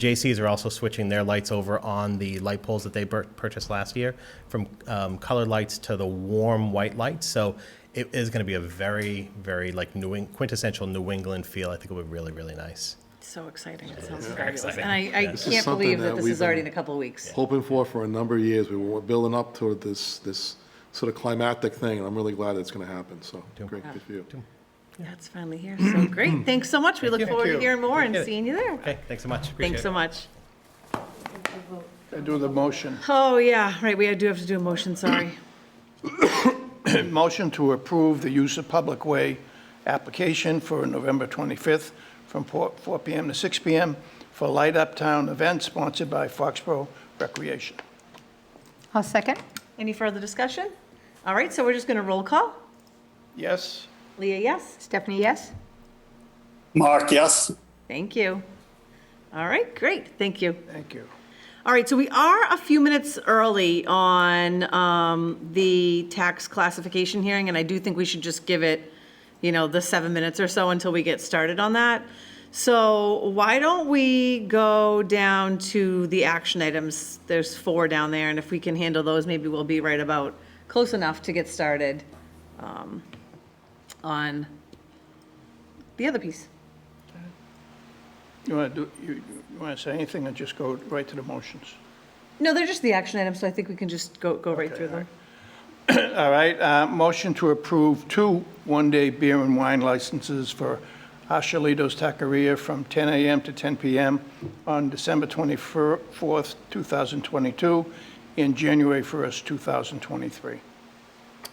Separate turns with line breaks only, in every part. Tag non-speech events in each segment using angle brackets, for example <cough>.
JCs are also switching their lights over on the light poles that they bur- purchased last year from um, colored lights to the warm white lights. So it is going to be a very, very like New Eng- quintessential New England feel. I think it would be really, really nice.
So exciting. It sounds fabulous.
exciting.
And I, I
This
can't
is
believe
something
that
that
this
we've
is already in
been-
a couple of weeks.
hoping for for a number of years. We were building up toward this, this sort of climactic thing, and I'm really glad it's going to happen, so great, good for you.
That's finally here.
<clears throat>
So great. Thanks so much. We look forward to hearing more and
Appreciate it.
seeing you there.
Okay, thanks so much. Appreciate
Thanks so
it.
much.
I do the motion.
Oh, yeah, right. We do have to do a motion, sorry. <clears throat>
Motion to approve the use of public way application for November 25th from 4 4 PM to 6 PM for Light Up Town event sponsored by Foxborough Recreation.
I'll second.
Any further discussion? All right, so we're just going to roll call.
Yes?
Leah, yes?
Stephanie, yes?
Mark, yes.
Thank you. All right, great. Thank you.
Thank you.
All right, so we are a few minutes early on um, the tax classification hearing, and I do think we should just give it, you know, the seven minutes or so until we get started on that. So why don't we go down to the action items? There's four down there, and if we can handle those, maybe we'll be right about close enough to get started um, on the other piece.
You want to do, you you want to say anything or just go right to the motions?
No, they're just the action items, so I think we can just go, go right through them.
All right, uh, motion to approve two one-day beer and wine licenses for Ashalito's Taqueria from 10 a.m. to 10 p.m. on December 24th, 2022, and January 1st, 2023.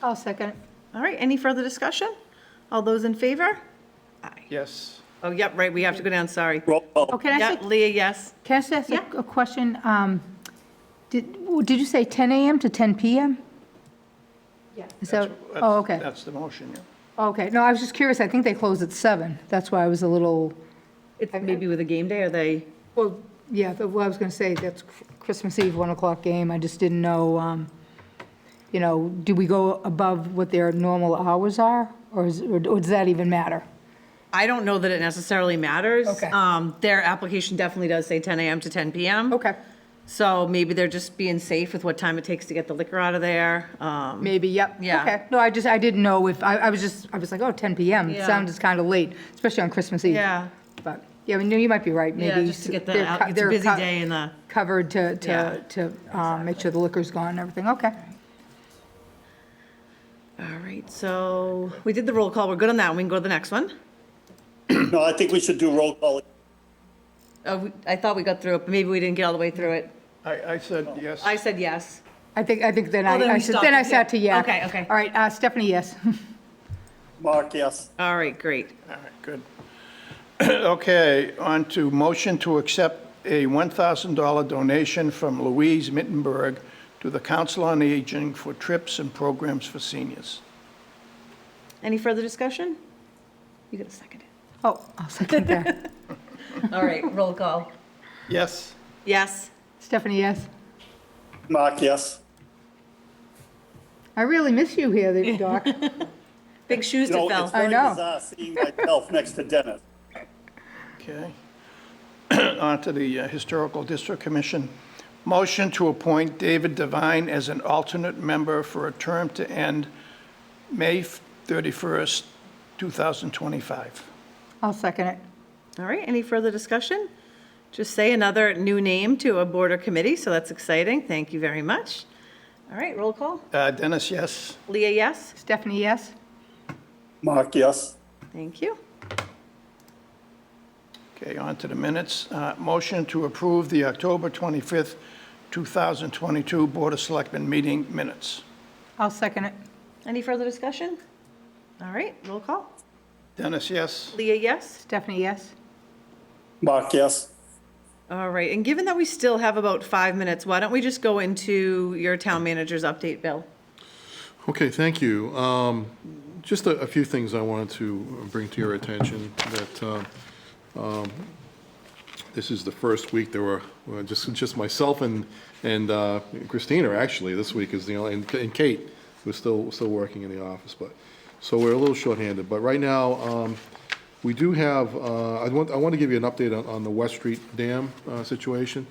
I'll second.
Oh,
All right, any further discussion? All those in favor?
Yes.
Oh, yep, right, we have to go down, sorry.
Roll call.
Oh, can I
Yep,
say,
Leah, yes.
can I just ask
Yeah.
a- a question? Um, Did, w- did you say 10 AM to 10 PM? Yeah. So,
That's-
oh, okay,
That's the motion, yeah.
okay. No, I was just curious. I think they close at seven. That's why I was a little,
It's maybe with a game day, are they?
well, yeah, but what I was going to say, that's Chr- Christmas Eve, 1 o'clock game. I just didn't know, um, you know, do we go above what their normal hours are? Or is, or does that even matter?
I don't know that it necessarily matters.
Okay.
Um, their application definitely does say 10 AM to 10 PM.
Okay,
So maybe they're just being safe with what time it takes to get the liquor out of there. Um,
maybe, yep.
Yeah.
Okay. No, I just, I didn't know if, I, I was just, I was like, oh, 10 PM. It
Yeah.
sounds kind of late, especially on Christmas Eve.
Yeah,
But, yeah, I mean, you might be right, maybe.
yeah, just to get that
they're
out,
co-
it's a
they're
busy
co-
day in the,
Covered to,
Yeah.
to, to um, make sure the liquor's gone and everything, okay.
all right, so we did the roll call, we're good on that, one. we can go to the next one.
No, I think we should do roll call.
Oh, we- I thought we got through it, but maybe we didn't get all the way through it.
I, I said yes.
I said yes.
I think, I think then
Oh, then
I, I
we
said-
stopped
then
it,
I
yeah.
sat to yak.
Okay, okay.
All right, uh, Stephanie, yes. <laughs>
Mark, yes.
All right, great.
All right, good. <clears throat> Okay, on to motion to accept a $1,000 donation from Louise Mittenberg to the Council on Aging for trips and programs for seniors.
Any further discussion? You get a second.
Oh, I'll
<laughs>
second that.
All right, roll call.
Yes.
Yes.
Stephanie, yes.
Mark, yes.
I really miss you
<laughs>
here, there, Doc.
Big shoes
You
to
know, it's
fill.
I
very
know.
bizarre seeing myself next to Dennis.
Okay. <clears throat> On to the uh, Historical District Commission. Motion to appoint David Devine as an alternate member for a term to end May 31st, 2025.
I'll second it.
All right, any further discussion? Just say another new name to a board or committee, so that's exciting. Thank you very much. All right, roll call.
Uh, Dennis, yes?
Leah, yes?
Stephanie, yes.
Mark, yes.
Thank you.
Okay, on to the minutes. Uh, Motion to approve the October 25th, 2022 Board of Selectmen meeting minutes.
I'll second it.
Any further discussion? All right, roll call.
Dennis, yes?
Leah, yes?
Stephanie, yes.
Mark, yes.
All right, and given that we still have about five minutes, why don't we just go into your town manager's update, Bill?
Okay, thank you. Um, Just a a few things I wanted to bring to your attention, that um, um, this is the first week there were, well, just, just myself and, and uh, Christina, actually, this week is the only, and and Kate was still, still working in the office, but, so we're a little shorthanded. But right now, um, We do have, uh, I want, I want to give you an update on, on the West Street Dam uh, situation.